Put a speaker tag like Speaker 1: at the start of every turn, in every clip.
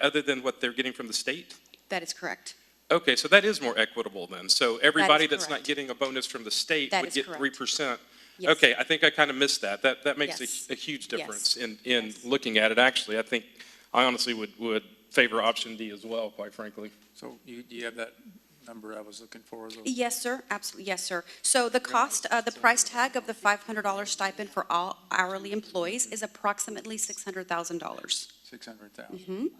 Speaker 1: other than what they're getting from the state?
Speaker 2: That is correct.
Speaker 1: Okay, so that is more equitable then. So everybody that's not
Speaker 2: correct.
Speaker 1: getting a bonus from the state
Speaker 2: That
Speaker 1: would
Speaker 2: is
Speaker 1: get
Speaker 2: correct.
Speaker 1: three percent.
Speaker 2: Yes.
Speaker 1: Okay, I think I kind of missed that. That, that makes
Speaker 2: Yes.
Speaker 1: a, a huge
Speaker 2: Yes.
Speaker 1: difference in, in
Speaker 2: Yes.
Speaker 1: looking at it, actually. I think, I honestly would, would favor option D as well, quite frankly.
Speaker 3: So you, do you have that number I was looking for? though?
Speaker 2: Yes, sir, absolutely, yes, sir. So the cost, uh, the price tag of the $500 stipend for all hourly employees is approximately $600,000.
Speaker 3: 600,000.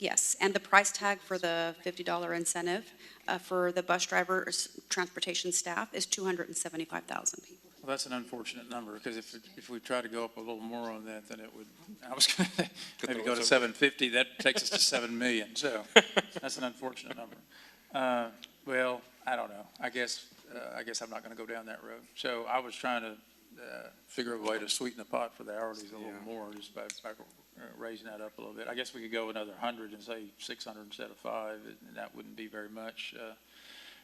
Speaker 2: Yes, and the price tag for the $50 incentive uh, for the bus drivers, transportation staff is $275,000.
Speaker 3: Well, that's an unfortunate number, because if, if we try to go up a little more on that, then it would, I was going to maybe go to 750, that takes us to 7 million, so that's an unfortunate number. Uh, Well, I don't know, I guess, uh, I guess I'm not going to go down that road. So I was trying to uh, figure a way to sweeten the pot for the hourlies a little more, just by, by uh, raising that up a little bit. I guess we could go another 100 and say 600 instead of 5, and that wouldn't be very much. uh,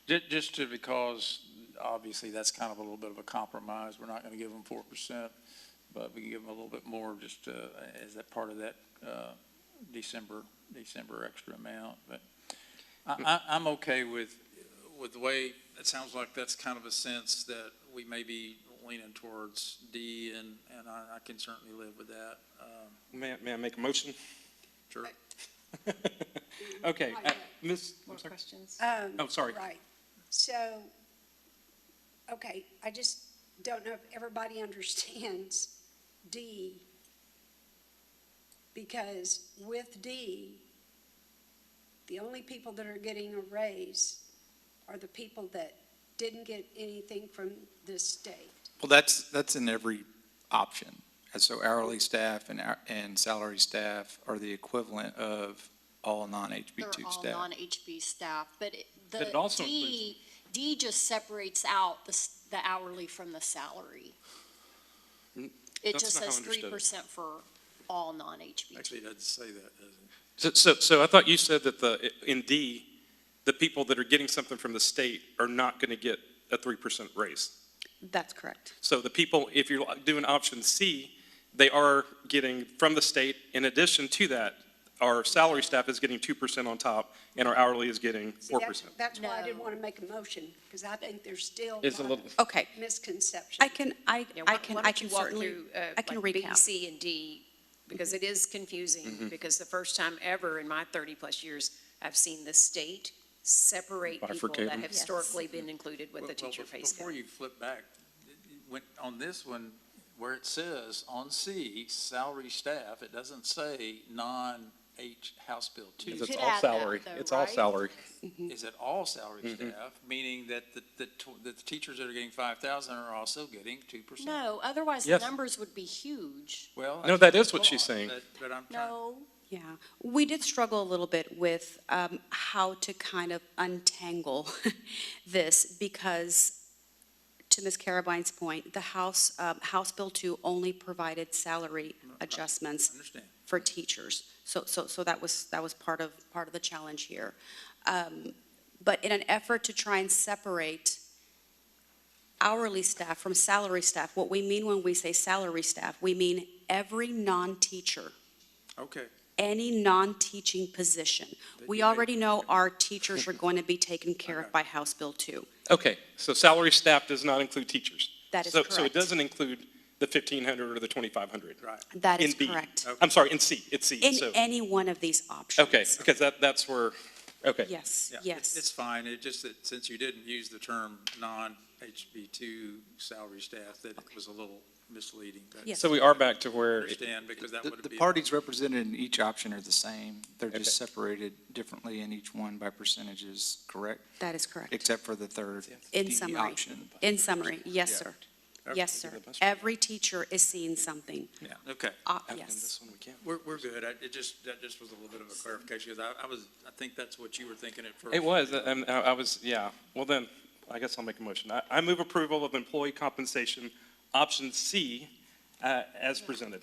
Speaker 3: ju- Just to, because obviously, that's kind of a little bit of a compromise. We're not going to give them four percent, but we can give them a little bit more just uh, as that part of that uh, December, December extra amount. But I, I, I'm okay with, with the way, it sounds like that's kind of a sense that we may be leaning towards D, and, and I, I can certainly live with that. Um,
Speaker 1: May, I- may I make a motion?
Speaker 3: Sure.
Speaker 1: Okay, uh, Ms.,
Speaker 4: More
Speaker 1: I'm sorry.
Speaker 4: questions?
Speaker 5: Um,
Speaker 1: Oh, sorry.
Speaker 5: Right. So, okay, I just don't know if everybody understands D. Because with D, the only people that are getting a raise are the people that didn't get anything from this state.
Speaker 6: Well, that's, that's in every option. And so hourly staff and, our- and salary staff are the equivalent of all
Speaker 7: They're
Speaker 6: non-HB2
Speaker 7: all
Speaker 6: staff.
Speaker 7: non-HB staff, but it-
Speaker 1: But it
Speaker 7: the
Speaker 1: also
Speaker 7: D, D just separates out the, s- the hourly from the salary.
Speaker 1: Mm,
Speaker 7: It
Speaker 1: that's
Speaker 7: just
Speaker 1: not how I
Speaker 7: says
Speaker 1: understood it.
Speaker 7: three percent for all non-HB.
Speaker 3: Actually, it doesn't say that, does it?
Speaker 1: So, so, so I thought you said that the, in D, the people that are getting something from the state are not going to get a three percent raise.
Speaker 2: That's correct.
Speaker 1: So the people, if you're doing option C, they are getting from the state, in addition to that, our salary staff is getting two percent on top, and our hourly is getting
Speaker 5: See,
Speaker 1: four
Speaker 5: that's-
Speaker 1: percent.
Speaker 5: That's why I didn't
Speaker 7: No.
Speaker 5: want to make a motion, because I think there's still
Speaker 1: It's a
Speaker 5: lot
Speaker 1: little-
Speaker 5: of
Speaker 2: Okay,
Speaker 5: misconception.
Speaker 2: I can, I,
Speaker 4: Yeah, why-
Speaker 2: I can,
Speaker 4: why
Speaker 2: I
Speaker 4: don't
Speaker 2: can
Speaker 4: you walk
Speaker 2: certainly,
Speaker 4: through, uh,
Speaker 2: I can Mm-hmm.
Speaker 4: like B,
Speaker 2: recap.
Speaker 4: C, and D, because it is confusing, because the first time ever in my 30-plus years, I've seen the state separate people that
Speaker 1: Bifurcate them.
Speaker 4: have historically been included with
Speaker 3: Well,
Speaker 4: the
Speaker 3: well,
Speaker 4: teacher
Speaker 3: be-
Speaker 4: pay scale.
Speaker 3: Before you flip back, when, on this one, where it says on C, salary staff, it doesn't say non-H House Bill two.
Speaker 7: It's could all add that, salary. though, It's all right? salary.
Speaker 3: Is it all salary
Speaker 1: Mm-hmm.
Speaker 3: staff, meaning that the, the, tw- that the teachers that are getting five thousand are also getting two percent?
Speaker 7: No, otherwise the
Speaker 1: Yes.
Speaker 7: numbers would be huge.
Speaker 3: Well.
Speaker 1: No, that
Speaker 3: that's
Speaker 1: is
Speaker 3: the
Speaker 1: what she's
Speaker 3: thought,
Speaker 1: saying.
Speaker 3: But but I'm trying,
Speaker 7: No,
Speaker 2: Yeah, we did struggle a little bit with um, how to kind of untangle this because, to Ms. Carabine's point, the House, uh, House Bill 2 only provided salary adjustments
Speaker 3: understand.
Speaker 2: for teachers. So, so, so that was, that was part of, part of the challenge here. Um, But in an effort to try and separate hourly staff from salary staff, what we mean when we say salary staff, we mean every non-teacher
Speaker 3: Okay,
Speaker 2: any non-teaching position. We already know our teachers are going to be taken care of by House Bill 2.
Speaker 1: Okay, so salary staff does not include teachers.
Speaker 2: That is
Speaker 1: So- So it
Speaker 2: correct.
Speaker 1: doesn't include the fifteen hundred or the twenty-five hundred.
Speaker 3: right.
Speaker 2: That is correct.
Speaker 1: I'm sorry, in C, it's C,
Speaker 2: In
Speaker 1: so,
Speaker 2: any one of these options.
Speaker 1: okay, because that, that's where, okay.
Speaker 2: Yes,
Speaker 3: Yeah, it's-
Speaker 2: yes.
Speaker 3: It's fine, it just that since you didn't use the term non-HB two salary staff, that it was a little misleading, but
Speaker 2: Yes.
Speaker 1: So we are back to where, it-
Speaker 3: understand, because that
Speaker 6: The,
Speaker 3: would
Speaker 6: the
Speaker 3: be.
Speaker 6: parties represented in each option are the same. They're just
Speaker 1: Okay.
Speaker 6: separated differently in each one by percentages, correct?
Speaker 2: That is correct.
Speaker 6: Except for the third,
Speaker 2: In
Speaker 6: D E
Speaker 2: summary.
Speaker 6: option.
Speaker 2: In summary, yes,
Speaker 6: Yeah.
Speaker 2: sir. Yes,
Speaker 1: Okay.
Speaker 2: sir. Every teacher is seeing something.
Speaker 3: Yeah, okay.
Speaker 2: Uh,
Speaker 1: I've done
Speaker 2: Yes.
Speaker 1: this one, we can't.
Speaker 3: We're, we're good. I, it just, that just was a little bit of a clarification, because I, I was, I think that's what you were thinking at first.
Speaker 1: It was, and I I was, yeah. Well, then, I guess I'll make a motion. I, I move approval of employee compensation, option C, uh, as presented.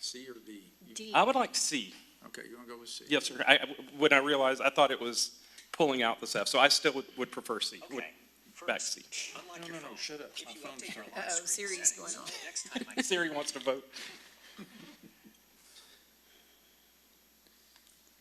Speaker 3: C or D?
Speaker 7: D.
Speaker 1: I would like C.
Speaker 3: Okay, you want to go with C?
Speaker 1: Yes, sir. I, I- when I realized, I thought it was pulling out the F, so I still would, would prefer C. would- Back C.
Speaker 3: No, no, no, shut up. My phone's not-
Speaker 4: Uh-oh, Siri's going on.
Speaker 1: Siri wants to vote.